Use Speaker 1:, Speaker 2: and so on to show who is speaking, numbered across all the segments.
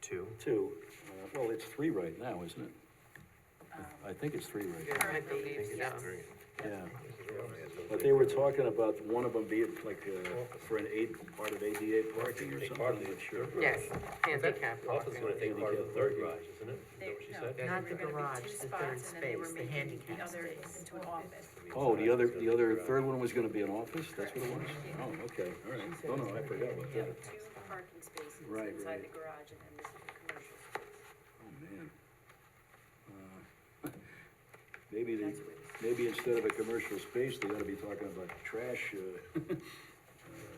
Speaker 1: two.
Speaker 2: two, uh, well, it's three right now, isn't it? I think it's three right now,
Speaker 1: I think
Speaker 3: Currently,
Speaker 1: it's
Speaker 3: yes.
Speaker 1: three.
Speaker 2: yeah. But they were talking about one of them being like, uh, for an aid, part of ADA parking or something, I'm not sure.
Speaker 3: Yes, handicap
Speaker 4: Office is gonna
Speaker 3: parking.
Speaker 4: take part of the third garage, isn't it? Is that what she said?
Speaker 3: Yeah.
Speaker 5: Not the
Speaker 3: There were
Speaker 5: garage,
Speaker 3: gonna be two
Speaker 5: the third
Speaker 3: spots, and then they were
Speaker 5: space, the
Speaker 3: making
Speaker 5: handicap
Speaker 3: the other
Speaker 5: space.
Speaker 3: into an office.
Speaker 2: Oh, the other, the other, third one was gonna be an office, that's what it was?
Speaker 3: Yeah.
Speaker 2: Oh, okay, all right, oh, no, I forgot about
Speaker 6: You
Speaker 2: that,
Speaker 6: have two parking spaces
Speaker 2: Right, right.
Speaker 6: inside the garage and then this is a commercial space.
Speaker 2: oh, man. Uh, Maybe they, maybe instead of a commercial space, they ought to be talking about trash, uh, uh,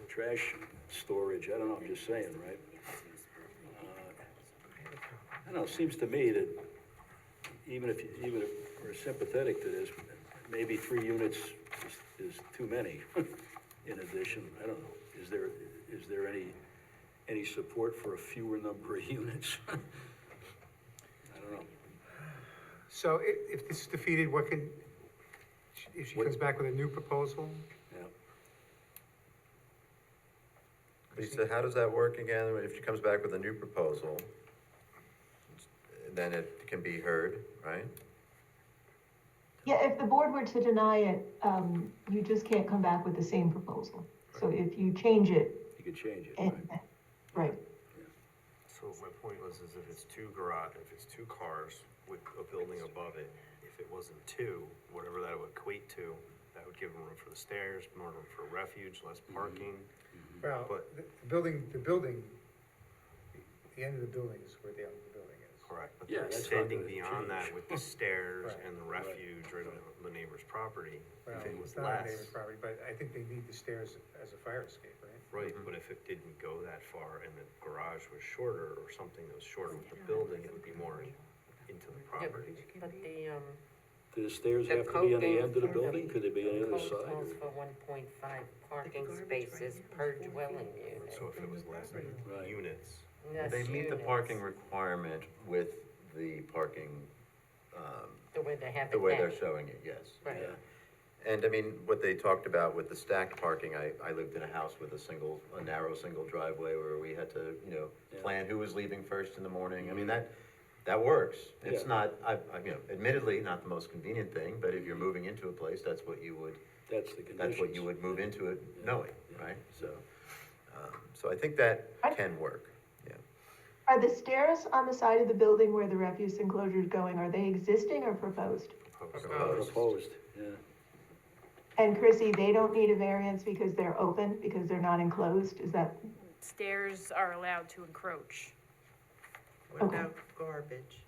Speaker 2: trash storage, I don't know, I'm just saying, right? Uh, I don't know, it seems to me that even if, even if we're sympathetic to this, maybe three units is, is too many in addition, I don't know. Is there, is there any, any support for a fewer number of units? I don't know.
Speaker 7: So i- if this is defeated, what can, if she comes back with a new proposal?
Speaker 2: Yeah.
Speaker 8: Lisa, how does that work again? If she comes back with a new proposal, then it can be heard, right?
Speaker 9: Yeah, if the board were to deny it, um, you just can't come back with the same proposal. So if you change it,
Speaker 2: You could change it,
Speaker 9: and,
Speaker 2: right?
Speaker 9: right,
Speaker 1: So my point was, is if it's two garage, if it's two cars with a building above it, if it wasn't two, whatever that would equate to, that would give them room for the stairs, more room for refuge, less
Speaker 2: Mm-hmm.
Speaker 1: parking.
Speaker 7: Well,
Speaker 1: But-
Speaker 7: the the building, the building, the end of the building is where the end of the building is.
Speaker 1: Correct, but
Speaker 2: Yeah,
Speaker 1: they're
Speaker 2: that's not
Speaker 1: extending
Speaker 2: gonna
Speaker 1: beyond that
Speaker 2: change.
Speaker 1: with the stairs
Speaker 7: Right.
Speaker 1: and the refuge right on the neighbor's property.
Speaker 7: Well,
Speaker 1: If it was
Speaker 7: it's not a
Speaker 1: less,
Speaker 7: neighbor's property, but I think they need the stairs as a fire escape, right?
Speaker 1: right,
Speaker 2: Mm-hmm.
Speaker 1: but if it didn't go that far and the garage was shorter or something that was shorter with the building, it would be more in- into the property.
Speaker 3: But the, um,
Speaker 2: Do the stairs
Speaker 3: The
Speaker 2: have to be on the
Speaker 3: code
Speaker 2: end of the
Speaker 3: calls-
Speaker 2: building? Could they be on the other
Speaker 3: code
Speaker 2: side?
Speaker 3: calls
Speaker 2: or-
Speaker 3: for one point five parking spaces per dwelling unit.
Speaker 1: So if it was less
Speaker 2: Right.
Speaker 1: units,
Speaker 3: Yes,
Speaker 8: They meet the
Speaker 3: units,
Speaker 8: parking requirement with the parking, um,
Speaker 3: The way they have it
Speaker 8: the way they're
Speaker 3: now.
Speaker 8: showing it, yes.
Speaker 3: Right.
Speaker 2: Yeah.
Speaker 8: And I mean, what they talked about with the stacked parking, I, I lived in a house with a single, a narrow single driveway where we had to, you know,
Speaker 2: Yeah.
Speaker 8: plan who was leaving first in the morning. I mean, that, that works. It's
Speaker 2: Yeah.
Speaker 8: not, I, I, you know, admittedly, not the most convenient thing, but if you're moving into a place, that's what you would,
Speaker 2: That's the condition.
Speaker 8: that's what you would move into it
Speaker 2: Yeah.
Speaker 8: knowing,
Speaker 2: Yeah.
Speaker 8: right? So, um, so I think that
Speaker 9: I-
Speaker 8: can work, yeah.
Speaker 9: are the stairs on the side of the building where the refuse enclosure is going, are they existing or proposed?
Speaker 1: proposed.
Speaker 8: Proposed.
Speaker 2: Proposed, yeah.
Speaker 9: And Chrissy, they don't need a variance because they're open, because they're not enclosed, is that,
Speaker 10: stairs are allowed to encroach.
Speaker 9: okay,
Speaker 3: No garbage.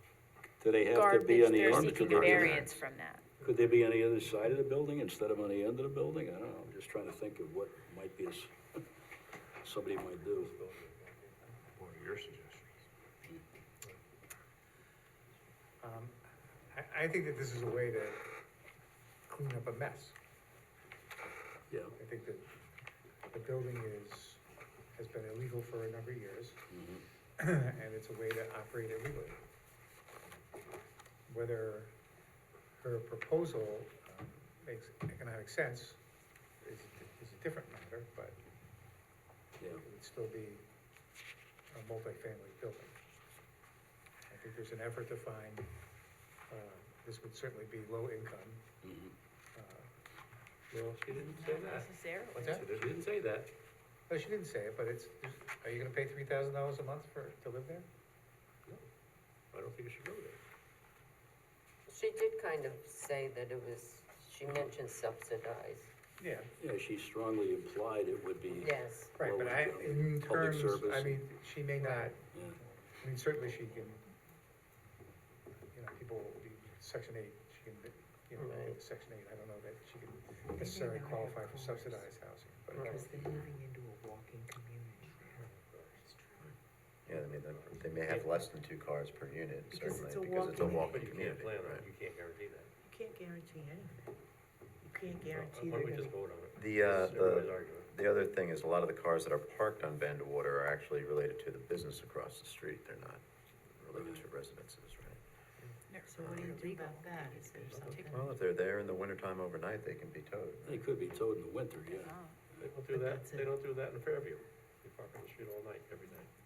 Speaker 2: Do they have to
Speaker 10: Garbage,
Speaker 2: be on the
Speaker 10: they're
Speaker 2: end of the
Speaker 10: seeking a
Speaker 2: building?
Speaker 10: variance from that.
Speaker 2: Could they be on the other side of the building instead of on the end of the building? I don't know, I'm just trying to think of what might be, a s- somebody might do.
Speaker 1: What are your suggestions?
Speaker 7: Um, I, I think that this is a way to clean up a mess.
Speaker 2: Yeah,
Speaker 7: I think that the building is, has been illegal for a number of years, and it's a way to operate illegally. Whether her proposal um, makes economic sense is, is a different matter, but
Speaker 2: yeah.
Speaker 7: it would still be a multifamily building. I think there's an effort to find, uh, this would certainly be low income,
Speaker 2: mhm.
Speaker 7: uh,
Speaker 4: No, she didn't say that.
Speaker 3: Necessarily.
Speaker 7: what's that?
Speaker 4: She didn't say that.
Speaker 7: No, she didn't say it, but it's, are you gonna pay three thousand dollars a month for, to live there?
Speaker 4: I don't think it should go there.
Speaker 3: She did kind of say that it was, she mentioned subsidized.
Speaker 7: Yeah.
Speaker 2: Yeah, she strongly implied it would be.
Speaker 3: Yes.
Speaker 7: Right, but I,
Speaker 2: uh,
Speaker 7: in
Speaker 2: Public
Speaker 7: terms, I
Speaker 2: service.
Speaker 7: mean, she may not,
Speaker 2: Yeah.
Speaker 7: I mean, certainly she can, you know, people will be section eight, she can, be- you know,
Speaker 3: Right.
Speaker 7: get section eight, I don't know that she can necessarily qualify for subsidized housing, but.
Speaker 3: they're moving into a walking community.
Speaker 8: Yeah, I mean, they- they may have less than two cars per unit,
Speaker 3: Because it's
Speaker 8: certainly,
Speaker 3: a
Speaker 8: because it's a
Speaker 3: walking-
Speaker 8: walking
Speaker 4: But you
Speaker 8: community,
Speaker 4: can't plan on
Speaker 8: right?
Speaker 4: it, you can't guarantee that.
Speaker 3: You can't guarantee anything. You can't
Speaker 4: Why don't we just vote on it?
Speaker 8: The, uh,
Speaker 4: This is everybody's
Speaker 8: the-
Speaker 4: argument.
Speaker 8: The other thing is, a lot of the cars that are parked on Van de Water are actually related to the business across the street, they're not related to residences, right?
Speaker 3: So what do you do about that? Is there something?
Speaker 8: Well, if they're there in the wintertime overnight, they can be towed.
Speaker 2: They could be towed in the winter, yeah.
Speaker 4: They don't do that, they don't do that in Fairview. They park on the street all night, every night.